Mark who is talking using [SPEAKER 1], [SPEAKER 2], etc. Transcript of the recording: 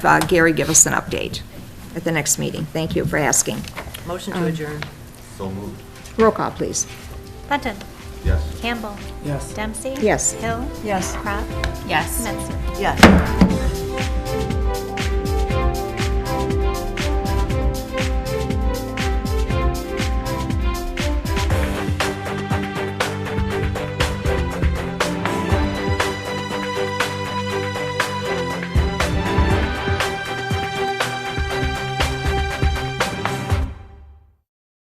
[SPEAKER 1] uh, Gary give us an update at the next meeting. Thank you for asking.
[SPEAKER 2] Motion to adjourn.
[SPEAKER 3] So moved.
[SPEAKER 1] Roll call, please.
[SPEAKER 4] Benton.
[SPEAKER 3] Yes.
[SPEAKER 4] Campbell. Yes. Dempsey.
[SPEAKER 1] Yes.
[SPEAKER 4] Hill. Yes. Crop.
[SPEAKER 5] Yes.
[SPEAKER 4] Menson.
[SPEAKER 2] Yes.